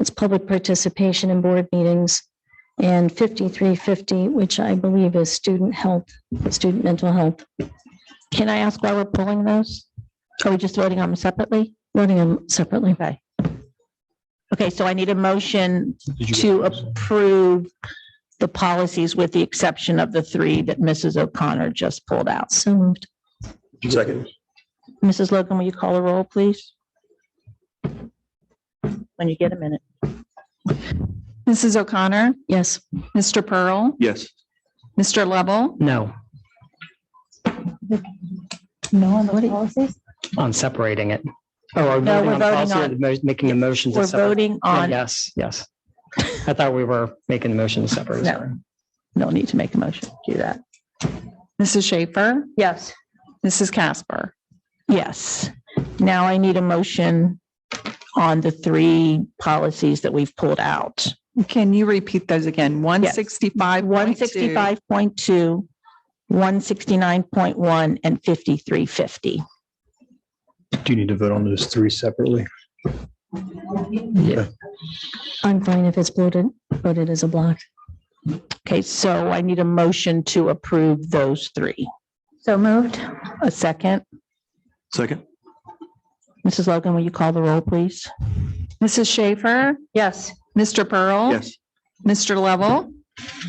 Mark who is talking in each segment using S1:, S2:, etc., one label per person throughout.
S1: It's public participation in board meetings. And fifty-three fifty, which I believe is student health, student mental health,
S2: Can I ask why we're pulling those? Are we just voting on them separately?
S1: voting them separately.
S2: Okay. Okay, so I need a motion
S3: Did you get
S2: to
S3: those?
S2: approve the policies with the exception of the three that Mrs. O'Connor just pulled out.
S1: So moved.
S3: Did you get those?
S2: Mrs. Logan, will you call the roll, please? When you get a minute.
S4: Mrs. O'Connor,
S1: Yes.
S4: Mr. Pearl,
S3: Yes.
S4: Mr. Lovell,
S5: No,
S2: No, on the policies?
S5: on separating it. Oh, are we
S2: No,
S5: voting
S2: we're
S5: on
S2: voting
S5: policy or
S2: on-
S5: the mo- making a motion to
S2: We're
S5: separate?
S2: voting
S5: Oh,
S2: on,
S5: Yes, yes. I thought we were making the motion to separate.
S2: No.
S5: sorry.
S2: no need to make a motion to do that.
S4: Mrs. Schaefer,
S2: Yes.
S4: Mrs. Casper.
S2: Yes. Now I need a motion on the three policies that we've pulled out.
S4: Can you repeat those again? One sixty-five.
S2: One sixty-five point two, one sixty-nine point one, and fifty-three fifty.
S3: Do you need to vote on those three separately?
S1: I'm fine if it's bloated, voted as a block.
S2: Okay, so I need a motion to approve those three. So moved. A second.
S3: Second.
S2: Mrs. Logan, will you call the roll, please?
S4: Mrs. Schaefer,
S2: Yes.
S4: Mr.
S1: Oh,
S4: Pearl. Mr. Lovell,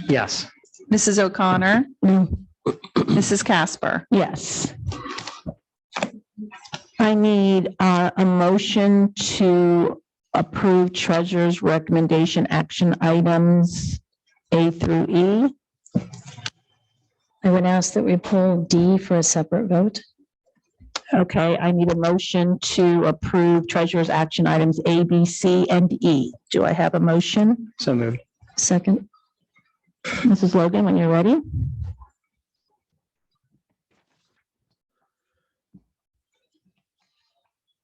S5: Yes,
S4: Mrs. O'Connor,
S1: No.
S3: Mm.
S4: Mrs. Casper.
S2: Yes. I need uh, a motion to approve treasurer's recommendation action items A through E.
S1: I would ask that we pull D for a separate vote.
S2: Okay, I need a motion to approve treasurer's action items A, B, C, and E. Do I have a motion?
S5: so moved.
S1: Second,
S2: Mrs. Logan, when you're ready?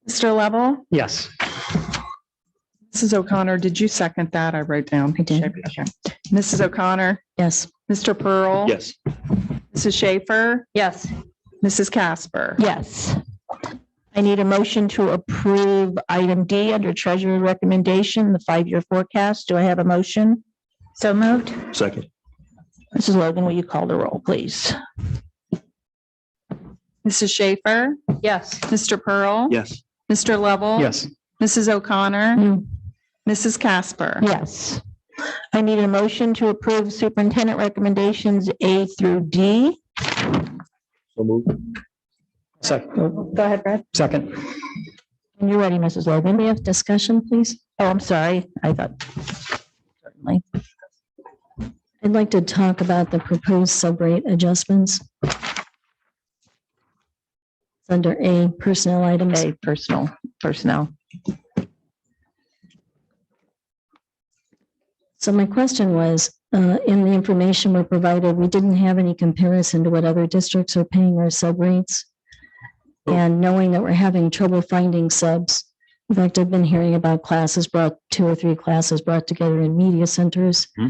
S4: Mr. Lovell,
S5: Yes,
S4: Mrs. O'Connor, did you second that? I wrote down.
S1: I did.
S4: Okay. Mrs. O'Connor,
S1: yes.
S4: Mr.
S1: oh.
S4: Pearl.
S3: Yes.
S4: Mrs. Schaefer,
S2: Yes.
S4: Mrs. Casper.
S2: Yes. I need a motion to approve item D under treasurer's recommendation, the five-year forecast. Do I have a motion? So moved.
S3: Second.
S2: Mrs. Logan, will you call the roll, please?
S4: Mrs. Schaefer,
S2: Yes.
S4: Mr. Pearl.
S3: Yes.
S4: Mr.
S2: Um,
S4: Lovell.
S5: yes,
S4: Mrs. O'Connor,
S1: No.
S4: Mrs. Casper.
S2: Yes. I need a motion to approve superintendent recommendations A through D.
S3: So moved.
S5: second,
S2: Go ahead, Brad.
S5: second,
S2: When you're ready, Mrs. Logan.
S1: Can we have discussion, please?
S2: Oh, I'm sorry. I thought. Certainly.
S1: I'd like to talk about the proposed subrate adjustments. It's Under A, personnel items.
S2: A, personal, personnel.
S1: So my question was, uh, in the information we're provided, we didn't have any comparison to what other districts are paying our sub rates. And knowing that we're having trouble finding subs, in fact, I've been hearing about classes brought, two or three classes brought together in media centers
S3: Hmm.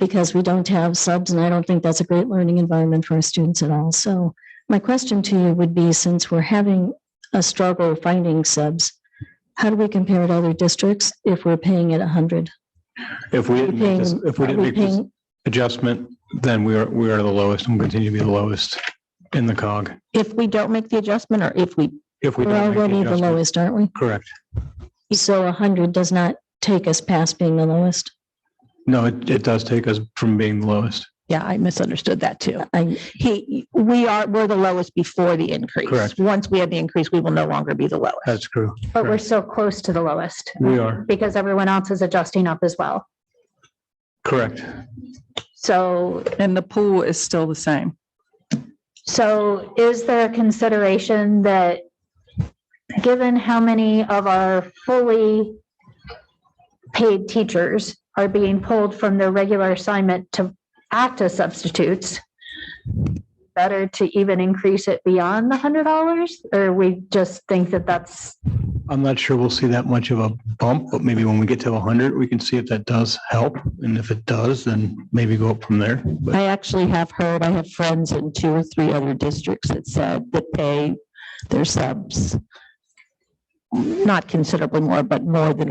S1: because we don't have subs, and I don't think that's a great learning environment for our students at all. So my question to you would be, since we're having a struggle finding subs, how do we compare to other districts if we're paying at 100?
S3: If we didn't make this, if we
S1: Are
S3: didn't
S1: we
S3: make this
S1: paying,
S3: adjustment, then we are, we are the lowest and continue to be the lowest in the cog.
S2: If we don't make the adjustment or if we,
S3: If we
S1: we're
S3: don't make
S1: already
S3: the
S1: the
S3: adjustment.
S1: lowest, aren't we?
S3: Correct.
S1: So a hundred does not take us past being the lowest.
S3: No, it, it does take us from being the lowest.
S2: yeah, I misunderstood that too.
S1: I,
S2: He, we are, we're the lowest before the increase.
S3: Correct.
S2: Once we have the increase, we will no longer be the lowest.
S3: That's true.
S6: But we're
S3: Correct.
S6: so close to the lowest
S3: We are.
S6: because everyone else is adjusting up as well.
S3: Correct.
S6: So,
S4: And the pool is still the same.
S6: so is there a consideration that given how many of our fully paid teachers are being pulled from their regular assignment to act as substitutes, better to even increase it beyond the hundred dollars? Or we just think that that's,
S3: I'm not sure we'll see that much of a bump, but maybe when we get to hundred, we can see if that does help. And if it does, then maybe go up from there. But
S2: I actually have heard, I have friends in two or three other districts that said that they, their subs not considerably more, but more than